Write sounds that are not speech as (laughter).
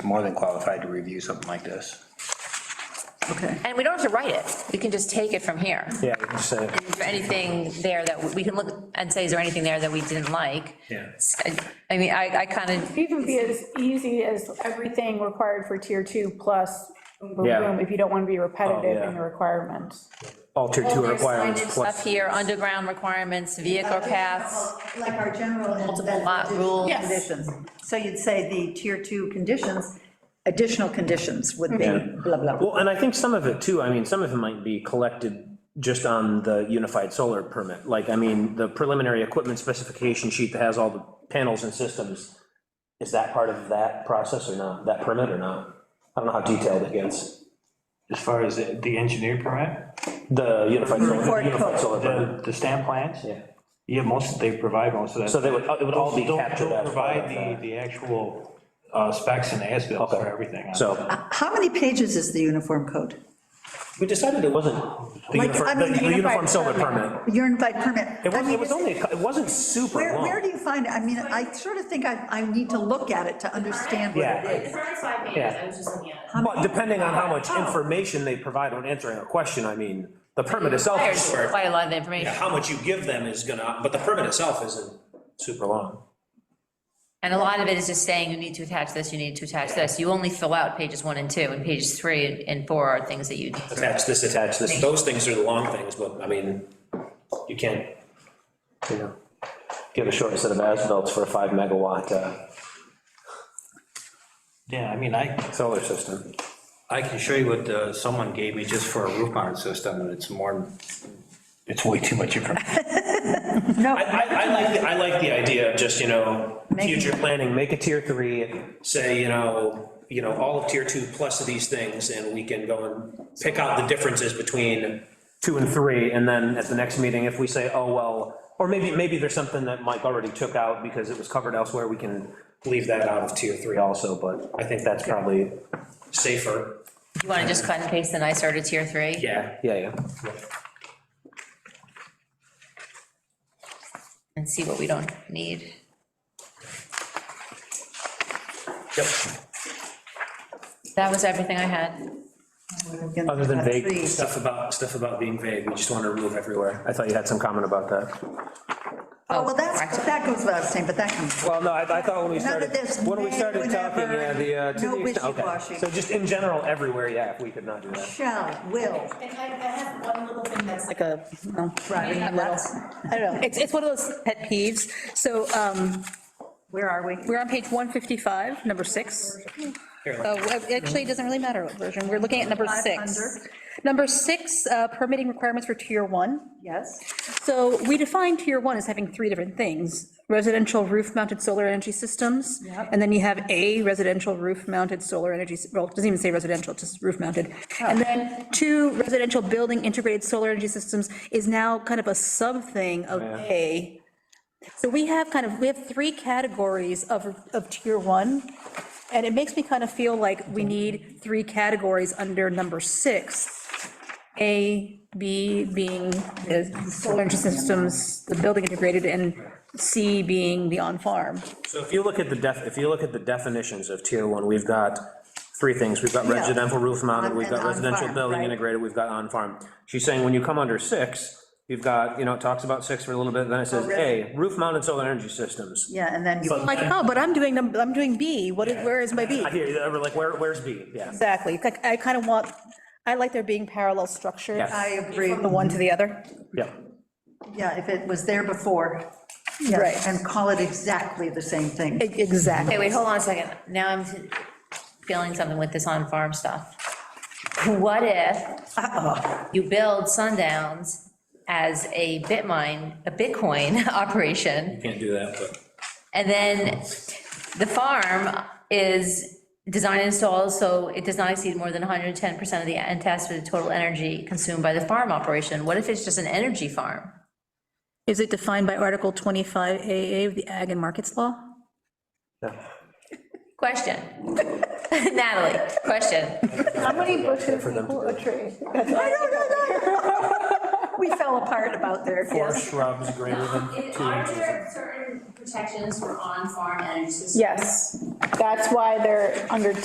more than qualified to review something like this. Okay. And we don't have to write it, we can just take it from here. Yeah, you just say, Is there anything there that, we- we can look and say, is there anything there that we didn't like? yeah. I- I mean, I, I kind of, Even be as easy as everything required for tier two plus, boom, boom, Yeah. Oh, boom, if you don't want to be repetitive yeah. in the requirements. Alter two there's requirements signage up plus. here, underground requirements, vehicle paths, Like our general. and then lot rules. additional Conditions. So you'd say the tier two conditions, additional conditions would be blah, blah. Well, and I think some of it too, I mean, some of it might be collected just on the unified solar permit. Like, I mean, the preliminary equipment specification sheet that has all the panels and systems, is that part of that process or not, that permit or not? I don't know how detailed it gets, As far as the the engineer permit, the unified solar, Report unified code. solar permit. the, the stamp plans? Yeah. Yeah, most, they provide most of that. So they would, it would all be Don't- captured Don't as part of provide that. the, the actual uh, specs and as bills for Okay. everything. So, How many pages is the uniform code? we decided it wasn't the Like, I uniform, mean, the- the unified uniform solar permit. Your invite permit. It I wasn't, mean, it was only, a cou- it wasn't super Where, long. where do you find it? I mean, I sort of think I, I need to look at it to understand what Yeah. it is. It's already five pages, I was just looking at it. But depending on how much information they provide when answering a question, I mean, the permit itself is there's short. quite a lot of information. How much you give them is gonna, but the permit itself isn't super long. And a lot of it is just saying, you need to attach this, you need to attach this. You only fill out pages one and two, and pages three and four are things that you, Attach this, attach this, those things are the long things, but I mean, you can't, you know, give a short set of asphalt for a five megawatt uh, Yeah, I mean, I, solar system. I can show you what uh, someone gave me just for a roof mounted system, and it's more, it's way too much information. I, I, I like, the- I like the idea of just, you know, Making- future planning, make a tier three, say, you know, you know, all of tier two plus of these things, and we can go and pick out the differences between two and three, and then at the next meeting, if we say, oh, well, or maybe, maybe there's something that Mike already took out because it was covered elsewhere, we can leave that out of tier three also, but I think that's probably safer. you want to just cut and paste the nicer to tier three? Yeah, yeah, yeah. And see what we don't need. Yep. That was everything I had. Other than vague Trees. stuff about, stuff about being vague, we just want to remove everywhere. I thought you had some comment about that. Oh, well, that's, correct. that goes without saying, but that comes. Well, no, I, I thought when we None of started, this when we may, started talking, whenever, yeah, the, uh, to no the extent, okay. wishy-washy. So just in general, everywhere, yeah, if we could not do that. Shall, will. And I, I have one little thing that's like a, Right. that's- I don't know, it's, it's one of those pet peeves. So um, Where are we? we're on page 155, number six. Uh, well, Actually, it doesn't really matter what version, we're looking at number Five six. Number six, uh, permitting requirements for tier one. Yes. So we define tier one as having three different things, residential roof-mounted solar energy systems. And then you have a residential roof-mounted solar energy, s- well, it doesn't even say residential, it's just roof-mounted. And then two residential building integrated solar energy systems is now kind of a sub-thing of a. So we have kind of, we have three categories of, of tier one. And it makes me kind of feel like we need three categories under number six. A, B being the solar energy systems, the building integrated, and C being the on-farm. So if you look at the def, if you look at the definitions of tier one, we've got three things. We've got Yeah. residential roof mounted, On- we've got and residential on-farm, building right. integrated, we've got on-farm. She's saying when you come under six, you've got, you know, it talks about six for a little bit, then it says, Oh, really? A, roof mounted solar energy systems. Yeah, and then you. Like, oh, but I'm doing, num- I'm doing B, what, is- where is my B? I hear, you, we're like, where, where's B? (laughs) Yeah. Exactly, like, I kind of want, I like there being parallel structure. Yes. I agree. From the one to the other. Yeah. Yeah, if it was there before. yes, Right. And call it exactly the same thing. E- Exactly. Okay, wait, hold on a second. Now I'm feeling something with this on-farm stuff. What if you build Sundowns as a Bitmine, a Bitcoin (laughs) operation, Can't do that, but. and then the farm is design and install, so it does not exceed more than 110% of the anticipated total energy consumed by the farm operation? What if it's just an energy farm? Is it defined by Article 25AA of the Ag and Markets Law? Question. (laughs) Natalie, question. How many bushes equal a tree? We fell apart about there. Or shrubs greater than two Are inches. there certain protections for on-farm energy systems? Yes, that's why they're under